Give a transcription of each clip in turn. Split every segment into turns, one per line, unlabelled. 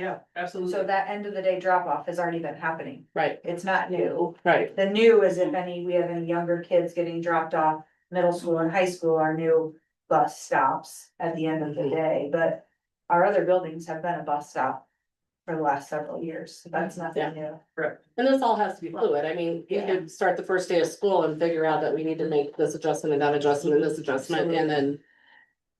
Yeah,
So
absolutely.
that end of the day drop off has already been happening.
Right,
It's not new.
right,
The new is if any, we have any younger kids getting dropped off, middle school and high school, our new bus stops at the end of
Mm-hmm.
the day, but. Our other buildings have been a bus stop for the last several years. That's
Mm-hmm.
Yeah.
nothing new.
and this all has to be fluid, I mean, we
Yeah.
could start the first day of school and figure out that we need to make this adjustment and that adjustment and this adjustment, and then.
And you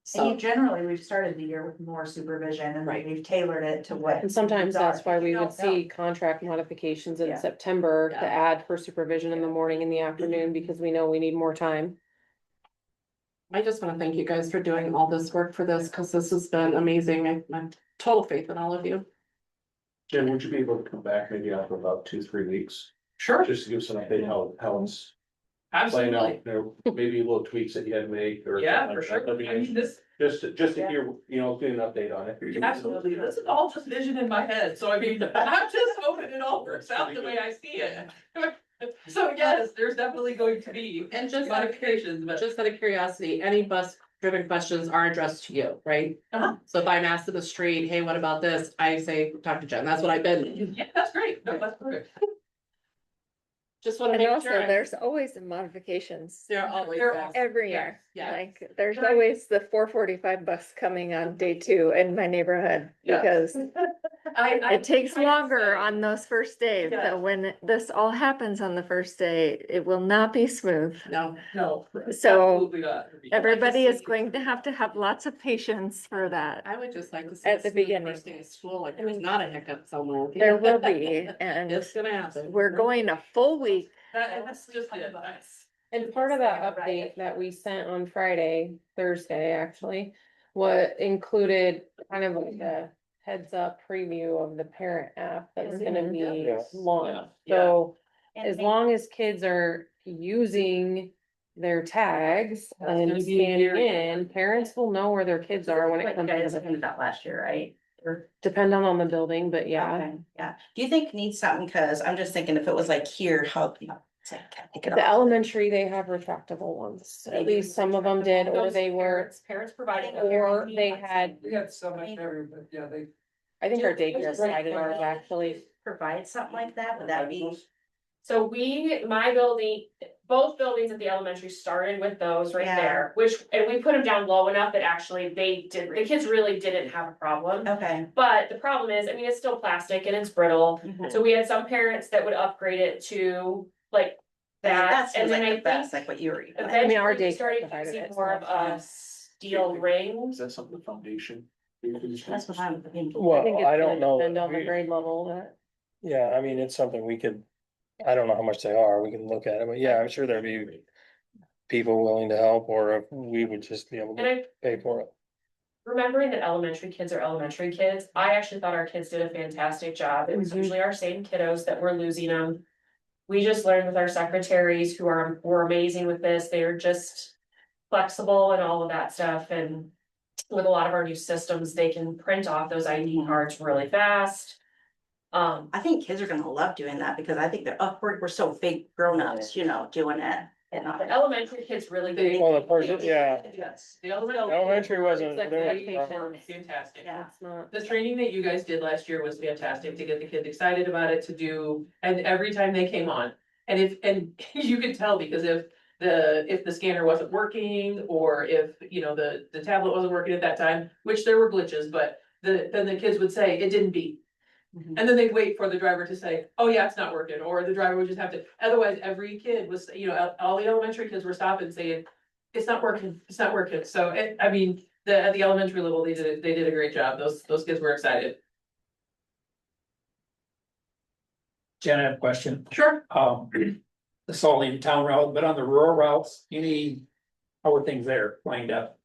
So,
generally, we've started the year with more supervision and
Right.
we've tailored it to what.
And sometimes that's why we
No,
would see contract modifications
Yeah.
in September to
Yeah.
add for supervision in the morning and the afternoon, because we know we need more time.
I just wanna thank you guys for doing all this work for this, cause this has been amazing, I, I have total faith in all of you.
Jim, would you be able to come back maybe after about two, three weeks,
Sure,
just to give us an update how, how it's playing
absolutely.
out? There may be little tweaks that you had to make or.
Yeah,
something like
for
that.
sure.
That'd be
I mean,
nice.
this,
Just, to- just to hear, you know, get an update on it.
absolutely, this is all just vision in my head, so I mean, I'm just hoping it all works out the way I see it. So yes, there's definitely going to be
And just out of curiosity,
modifications, but
just out of curiosity, any bus driven questions are addressed to you, right?
Uh-huh.
So if I'm asked to the street, hey, what about this, I say, talk to Jen, that's what I've been,
yeah, that's great, no, that's perfect.
just wanna
And
make
also,
sure.
there's always the modifications
They're always
They're
asked.
every
Yeah,
year.
yeah.
Like, there's
Right.
always the four forty-five bus coming on day two in my neighborhood
Yeah.
because
I, I.
it takes
I-
longer on those first days.
Yeah.
So when this all happens on the first day, it will not be smooth.
No,
No.
So
absolutely not.
everybody is going to have to have lots of patience for that.
I would just like to see.
At
us
the
do the
beginning.
First day of school, like there's not a hiccup somewhere.
There will be, and
It's gonna happen.
we're going a full week
That, that's just it. That's-
And part of that update that we sent on Friday, Thursday, actually, what included kind of like a heads up preview of the parent app that's gonna
Mhm.
be
Yeah.
launched.
Yeah.
So as long as kids are using their tags
That's gonna
and
be
scanning
very-
in, parents will know where their kids are when it comes to the
that last year, right?
Depend on, on the building, but yeah,
Yeah.
Do you think needs something? Cause I'm just thinking if it was like here, how, it's like, can't think it
the
up.
elementary, they have retractable ones, at least some of them did, or
Those
they were.
parents- Parents providing. the
Or
parenting
they
advice.
had,
We had so much there, but yeah, they,
I think our daycare
Just
side of
like-
ours actually,
Provide something like that, would that be?
So we, my building, both buildings at the elementary started with those right
Yeah.
there, which, and we put them down low enough that actually they did, the kids really didn't have a problem.
Okay.
But the problem is, I mean, it's still plastic and it's brittle,
Mhm.
so we had some parents that would upgrade it to like that,
That
and
seems
then
like the
I
best,
think.
like what you were. eating.
I mean, our
Eventually, we
daycare
started
provided
using
it, so
more of a steel ring,
Is that something the foundation?
That's what I'm thinking.
I think
Well,
it's
I
gonna
don't know,
depend on the
We-
grade level that.
yeah, I mean, it's something we could, I don't know how much they are, we can look at it, but yeah, I'm sure there'd be people willing to help, or if we would just be able
and
to
I
pay for it.
remembering that elementary kids are elementary kids, I actually thought our kids did a fantastic job. It was
Mhm.
usually our same kiddos that were losing them. We just learned with our secretaries who are, were amazing with this. They are just flexible and all of that stuff and with a lot of our new systems, they can print off those ID cards really fast. Um,
I think kids are gonna love doing that because I think they're upward, we're so big grown-ups, you know, doing it.
and the elementary kids really.
They-
Well, the person, yeah,
Yes, the elementary-
elementary wasn't,
It's like
there-
education.
uh,
were Fantastic.
Yeah.
It's not.
The training that you guys did last year was fantastic to get the kids excited about it to do, and every time they came on. And if, and you could tell because if the, if the scanner wasn't working or if, you know, the, the tablet wasn't working at that time, which there were glitches, but the, then the kids would say, it didn't beep.
Mhm.
And then they'd wait for the driver to say, oh yeah, it's not working, or the driver would just have to, otherwise every kid was, you know, all the elementary kids were stopping saying, it's not working, it's not working. So it, I mean, the, at the elementary level, they did, they did a great job. Those, those kids were excited.
Jen, I have a question.
Sure.
Um, this all in town route, but on the rural routes, any, how are things there lined up?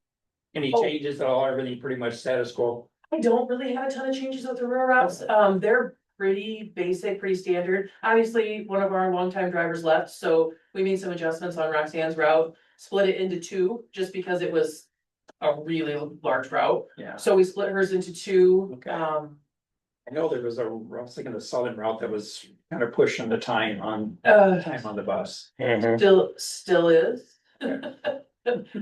Any
Oh.
changes at all? Everything pretty much status quo?
I don't really have a ton of changes with the rural routes. Um, they're pretty basic, pretty standard. Obviously, one of our longtime drivers left, so we made some adjustments on Roxanne's route. Split it into two, just because it was a really large route.
Yeah.
So we split hers into two.
Okay.
Um,
I know there was a, I was thinking the southern route that was kind of pushing the time on,
uh,
time on the bus.
mhm.
Still, still is.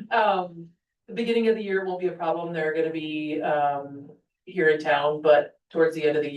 Um, the beginning of the year won't be a problem. They're gonna be, um, here in town, but towards the end of the